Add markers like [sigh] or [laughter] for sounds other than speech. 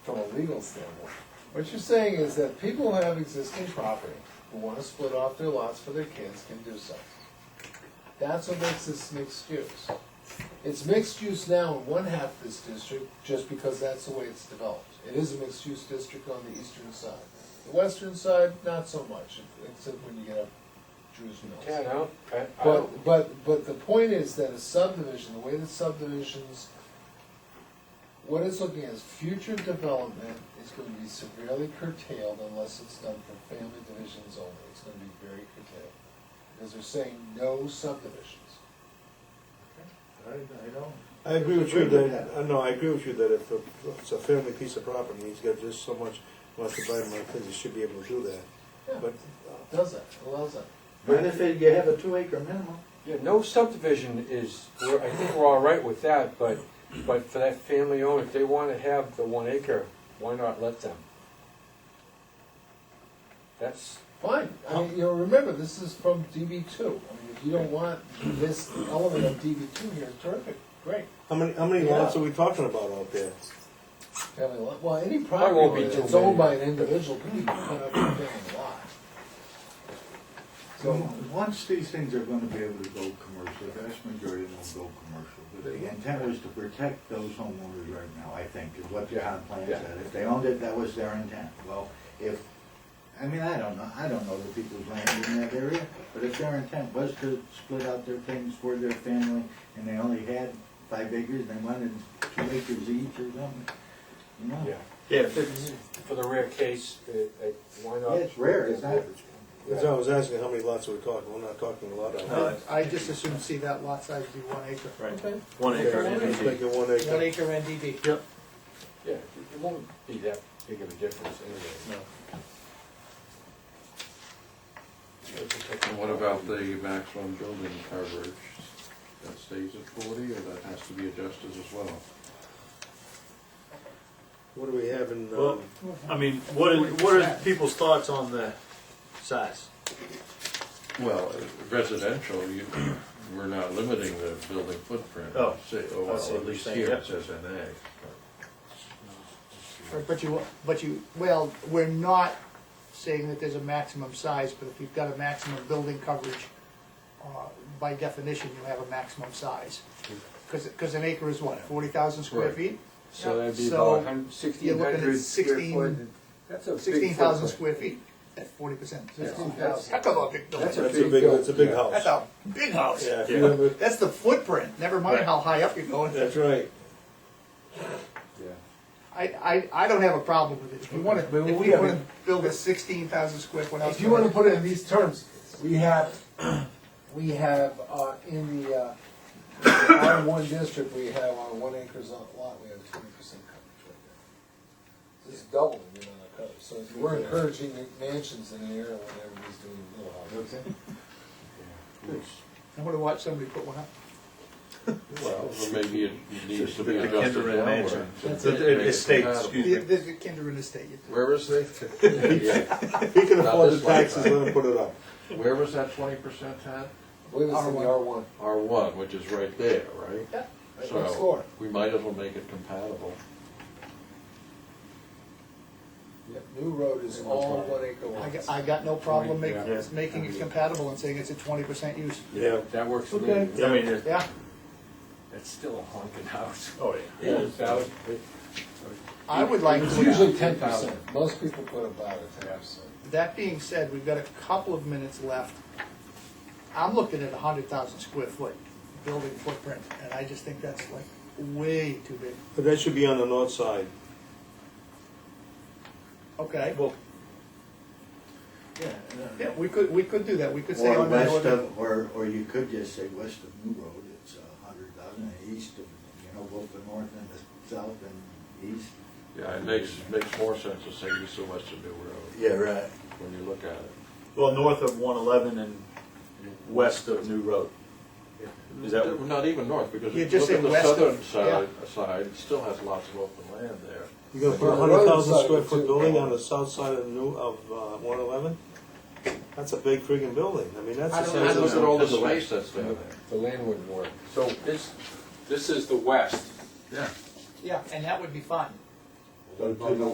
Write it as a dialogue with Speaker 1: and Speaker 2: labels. Speaker 1: a legal standpoint. What you're saying is that people who have existing property, who wanna split off their lots for their kids, can do so. That's what makes this mixed use. It's mixed use now in one half of this district, just because that's the way it's developed. It is a mixed use district on the eastern side. The western side, not so much, except when you get up Drew's Mills.
Speaker 2: Yeah, no, I, I don't,
Speaker 1: But, but, but the point is that a subdivision, the way that subdivisions, what it's looking at is future development is gonna be severely curtailed unless it's done for family divisions only, it's gonna be very curtailed. Because they're saying no subdivisions.
Speaker 3: I, I don't.
Speaker 4: I agree with you
Speaker 3: Agree with
Speaker 4: that, uh, no, I agree with you that if a- it's a family piece of property, he's got just so much, wants to buy more things, he should be able to do
Speaker 1: Yeah.
Speaker 4: that. But uh,
Speaker 1: Does that, allows that.
Speaker 3: But if it- you have a two acre minimum,
Speaker 2: yeah, no subdivision is, we're, I think we're all right with that, but, but for that family owner, if they wanna have the one acre, why not let them? That's,
Speaker 1: Fine, I mean, you know, remember, this is from DB two, I mean, if you don't want this element of DB two here, terrific, great.
Speaker 4: How many, how many lots are we talking about out there?
Speaker 1: Family lot, well, any
Speaker 2: Probably won't
Speaker 1: property
Speaker 2: be too
Speaker 1: that's owned
Speaker 2: many.
Speaker 1: by an individual can be put up in a family lot.
Speaker 3: so
Speaker 1: So,
Speaker 3: once these things are gonna be able to go commercial, the vast majority of them will go commercial. But the intent was to protect those homeowners right now, I think, is what John Plan
Speaker 2: Yeah.
Speaker 3: said. If they owned it, that was their intent. Well, if, I mean, I don't know, I don't know the people's land in that area, but if their intent was to split out their things for their family, and they only had five acres, they wanted two acres each or something, you know?
Speaker 2: yeah,
Speaker 5: Yeah, if it's,
Speaker 2: for the rare case, uh, uh, why
Speaker 3: Yeah,
Speaker 2: not?
Speaker 3: it's rare, it's not,
Speaker 4: That's why I was asking, how many lots are we talking, we're not talking a lot out
Speaker 5: No,
Speaker 4: there.
Speaker 6: I just assume see that lot size be one acre.
Speaker 5: right,
Speaker 1: okay,
Speaker 5: one acre.
Speaker 4: Just make it one acre.
Speaker 6: One acre NDD.
Speaker 5: Yep.
Speaker 2: Yeah, it won't be that big of a difference anyway.
Speaker 7: And what about the maximum building coverage? That stays at forty, or that has to be adjusted as well?
Speaker 4: What do we have in, um,
Speaker 5: Well- I mean, what are, what are people's thoughts on the size?
Speaker 7: Well, residential, you, we're not limiting the building footprint.
Speaker 5: Oh,
Speaker 7: Say-
Speaker 5: I
Speaker 7: oh, well,
Speaker 5: see what
Speaker 7: at
Speaker 5: you're
Speaker 7: least
Speaker 5: saying,
Speaker 7: here
Speaker 5: yep.
Speaker 7: it says an A.
Speaker 6: Right, But you, but you, well, we're not saying that there's a maximum size, but if you've got a maximum building coverage, uh, by definition, you have a maximum size. Because, an acre is what, forty thousand square
Speaker 7: Right.
Speaker 6: feet?
Speaker 2: So that'd be
Speaker 6: So,
Speaker 2: about hun-
Speaker 6: you're
Speaker 2: sixteen
Speaker 6: looking at
Speaker 2: hundred square
Speaker 6: 16
Speaker 2: foot. That's a big
Speaker 6: Sixteen thousand
Speaker 2: footprint.
Speaker 6: square feet at forty percent.
Speaker 1: sixteen thousand.
Speaker 6: Heck of a big
Speaker 2: That's
Speaker 6: building.
Speaker 4: that's a big, that's a big
Speaker 6: That's
Speaker 4: house.
Speaker 6: a big house.
Speaker 4: Yeah, if you
Speaker 5: Yeah.
Speaker 4: remember,
Speaker 6: That's the footprint, never mind
Speaker 5: Right.
Speaker 6: how high up you're going.
Speaker 4: that's right.
Speaker 6: I, I, I don't have a problem with it. If you wanna, if
Speaker 1: But we
Speaker 6: you
Speaker 1: have-
Speaker 6: wanna build a sixteen thousand square foot house.
Speaker 1: If you wanna put it in these terms, we have, [clears throat] we have, uh, in the, uh, R one district, we have on one acre zon- lot, we have twenty percent coverage right there. This is doubling the amount of coverage, so if we're encouraging mansions in an area when everybody's doing little houses.
Speaker 6: I wanna watch somebody put one up.
Speaker 7: Well, or maybe it needs to be
Speaker 5: The
Speaker 7: adjusted
Speaker 5: Kindred
Speaker 7: downward.
Speaker 5: Mansion.
Speaker 1: That's it.
Speaker 5: The- the Estate,
Speaker 6: The-
Speaker 5: excuse me.
Speaker 6: There's a kinder in the state.
Speaker 7: Where was they? Yeah.
Speaker 4: He can
Speaker 7: Not
Speaker 4: afford the
Speaker 7: this way.
Speaker 4: taxes, let him put it up.
Speaker 7: Where was that twenty percent at?
Speaker 1: I believe it's in the R one.
Speaker 7: R one, which is right there, right?
Speaker 1: Yeah. Right next door.
Speaker 7: So, we might as well make it compatible.
Speaker 1: Yep, New road is all one acre
Speaker 6: I
Speaker 1: lots.
Speaker 6: got, I got no problem making,
Speaker 5: Yeah.
Speaker 6: making it compatible and saying it's a twenty percent use.
Speaker 4: Yeah.
Speaker 2: That works for me.
Speaker 5: I mean, it-
Speaker 6: Yeah,
Speaker 2: That's still a haunted house.
Speaker 5: oh, yeah.
Speaker 2: That would-
Speaker 6: I would like
Speaker 1: It's
Speaker 6: to.
Speaker 1: usually ten percent, most people put about a ten percent.
Speaker 6: That being said, we've got a couple of minutes left. I'm looking at a hundred thousand square foot building footprint, and I just think that's like way too big.
Speaker 4: But that should be on the north side.
Speaker 6: Okay,
Speaker 5: Well,
Speaker 3: yeah.
Speaker 6: yeah, we could, we could do that. We could say
Speaker 3: Or
Speaker 6: on that
Speaker 3: west
Speaker 6: order.
Speaker 3: of, or, or you could just say west of New Road, it's a hundred thousand, and east of, you know, both the north and the south and east.
Speaker 7: Yeah, it makes, makes more sense to say you so much to New Road,
Speaker 3: Yeah, right.
Speaker 7: when you look at it.
Speaker 5: well, north of one eleven and west of New Road. Is that-
Speaker 7: Not even north, because
Speaker 6: Yeah,
Speaker 7: if you
Speaker 6: just
Speaker 7: look at
Speaker 6: say
Speaker 7: the
Speaker 6: west
Speaker 7: southern
Speaker 6: of-
Speaker 7: side, side, it still has lots of open land there.
Speaker 4: You're gonna put a
Speaker 1: On the
Speaker 4: hundred
Speaker 1: road
Speaker 4: thousand
Speaker 1: side,
Speaker 4: square
Speaker 1: it's
Speaker 4: foot
Speaker 1: too
Speaker 4: building
Speaker 1: broad.
Speaker 4: on the south side of new, of, uh, one eleven? That's a big friggin' building, I mean, that's
Speaker 2: I
Speaker 4: the
Speaker 2: don't
Speaker 7: And
Speaker 4: size
Speaker 2: know.
Speaker 7: look
Speaker 4: of.
Speaker 7: at all the space that's down there.
Speaker 2: The land wouldn't work. So this, this is the west.
Speaker 7: Yeah.
Speaker 6: Yeah, and that would be fine.
Speaker 3: Go to the